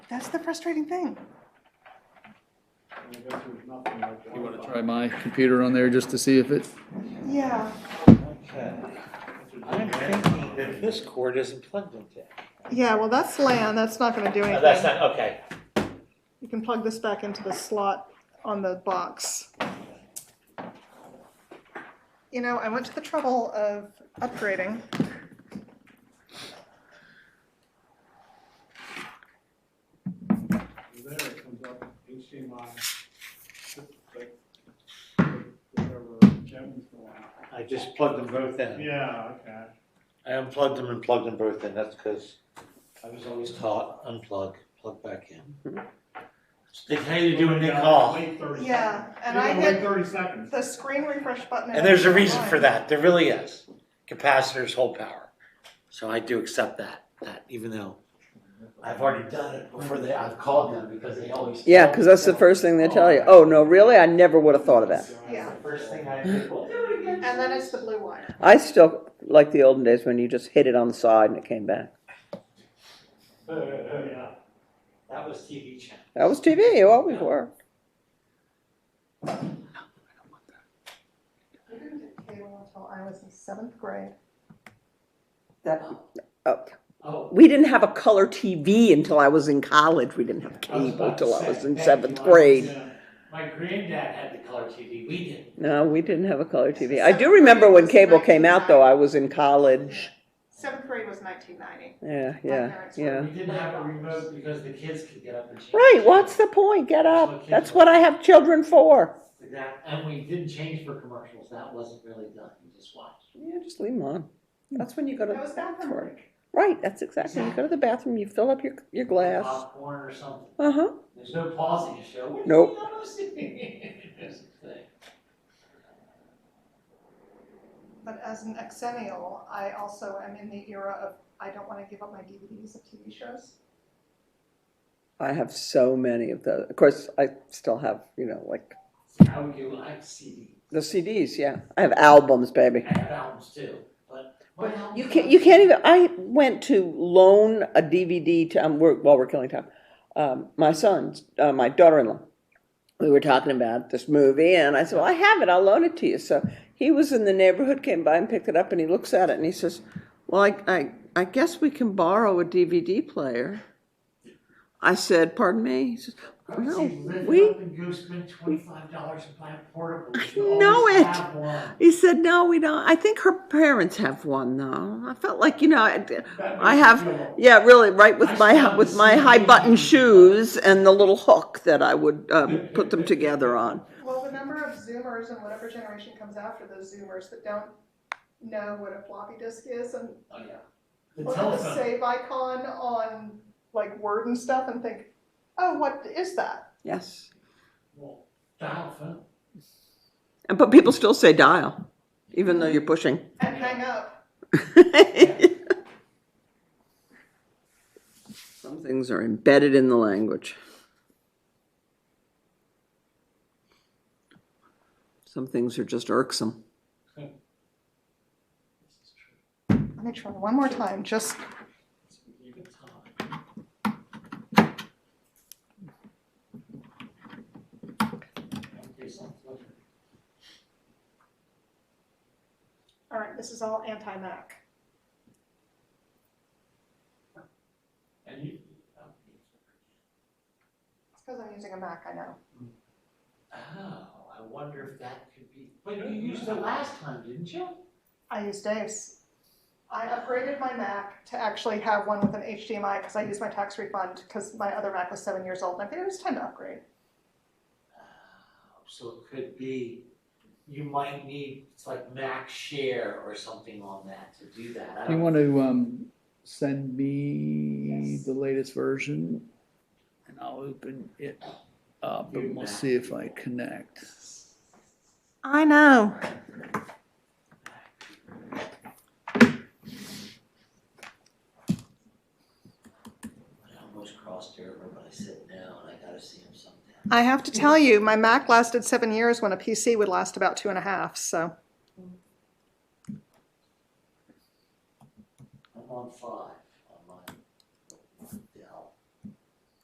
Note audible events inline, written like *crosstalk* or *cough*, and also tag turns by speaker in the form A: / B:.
A: That's the frustrating thing.
B: I guess there's nothing like
C: You wanna
B: Wi-Fi.
C: try my computer on there just to see if it,
A: Yeah,
D: Okay. I'm
B: That's a-
D: thinking that this cord isn't plugged into. it.
A: yeah, well, that's LAN, that's not gonna do
D: Oh, that's
A: anything.
D: not, okay.
A: You can plug this back into the slot on the box. You know, I went to the trouble of upgrading.
B: There it comes up, HDMI, like, whatever, Kevin's going.
D: I just plugged them both in.
B: Yeah, okay.
D: I unplugged them and plugged them both in. That's because I was always taught unplug, plug back in. It's how you do when you
B: Yeah,
D: call.
B: Wait thirty seconds.
A: Yeah, and
B: You're
A: I
B: gonna Wait
A: hit-
B: thirty seconds.
A: The screen refresh button.
D: And there's a reason for that, there really is. Capacitors hold power. So I do accept that, that even though I've already done it before they, I've called them because they always.
E: Yeah, because that's the first thing they tell you. Oh, no, really? I never would have thought of that.
A: Yeah.
D: First thing I did, *laughs* well, do it again.
A: And then it's the blue wire.
E: I still like the olden days when you just hit it on the side and it came back.
D: oh,
B: Yeah.
D: That was TV channel.
E: That was TV. You always were.
A: I didn't get cable until I was in seventh grade.
E: That,
D: Oh.
E: we didn't have a color TV until I was in college. We didn't have cable till I was in seventh grade.
B: Yeah.
D: My granddad had the color TV, we didn't.
E: No, we didn't have a color TV. I do remember when cable came out, though. I was in college.
A: Seventh grade was nineteen ninety.
E: Yeah, yeah, yeah.
D: We didn't have a remote because the kids could get up and change.
E: Right. What's the point? Get up. That's what I have children for.
D: Exact- And we didn't change for commercials, that wasn't really done, you just watched.
E: Yeah, just leave them on. That's when you go to
A: That
E: the
A: was bathroom
E: bathroom.
A: break.
E: Right, that's exactly. You go to the bathroom, you fill up your, your glass.
D: Popcorn or something.
E: Uh huh.
D: There's no pausing to show. "What
E: Nope.
D: are you *laughs* doing?" That's the thing.
A: But as an exennial, I also am in the era of I don't want to give up my DVDs of TV shows.
E: I have so many of those. Of course, I still have, you know, like
D: See, I would do, I have CD,
E: the CDs. Yeah, I have albums, baby.
D: I have albums too, but. my albums
E: You
D: are
E: can't.
D: not-
E: You can't even. I went to loan a DVD to um, we're, while we're killing time. Um, my son, uh, my daughter-in-law, we were talking about this movie, and I said, "Well, I have it. I'll loan it to you." So he was in the neighborhood, came by and picked it up, and he looks at it and he says, "Well, I, I, I guess we can borrow a DVD player." I said, "Pardon me." He says,
D: I would
E: "No,
D: say lift
E: we."
D: up and go spend twenty-five dollars and buy a portable. You
E: know
D: always
E: it.
D: have one.
E: He said, "No, we don't. I think her parents have one, though. I felt like, you know, I, I have, yeah, really, right with my with my high button shoes and the little hook that I would um, put them together on.
A: Well, the number of Zoomers and whatever generation comes after those Zoomers that don't know what a floppy disk is and
D: Oh, yeah. The
A: look at the
D: telephone.
A: save icon on like Word and stuff and think, oh, what is that?
E: Yes,
D: Well, dial phone.
E: and but people still say dial, even though you're pushing. *laughs*
A: And hang up.
E: Some things are embedded in the language. Some things are just irksome.
D: This is true.
A: Let me try one more time, just
D: Give it time. Okay, something.
A: All right, this is all anti-Mac.
D: And you.
A: It's because I'm using a Mac, I know.
D: Oh, I wonder if that could be, but you used it last time, didn't you?
A: I use Dave's. I upgraded my Mac to actually have one with an HDMI because I used my tax refund because my other Mac was seven years old and I figured it was time to upgrade.
D: Oh, So it could be, you might need, it's like Mac Share or something on that to do that. I
C: you
D: don't-
C: want to, um, send me
A: Yes.
C: the latest version? And I'll open it up
D: You
C: and we'll
D: bet.
C: see if I connect.
A: I know.
D: I almost crossed over, but I said no, and I gotta see him sometime.
A: I have to tell you, my Mac lasted seven years when a PC would last about two and a half, so.
D: I'm on five.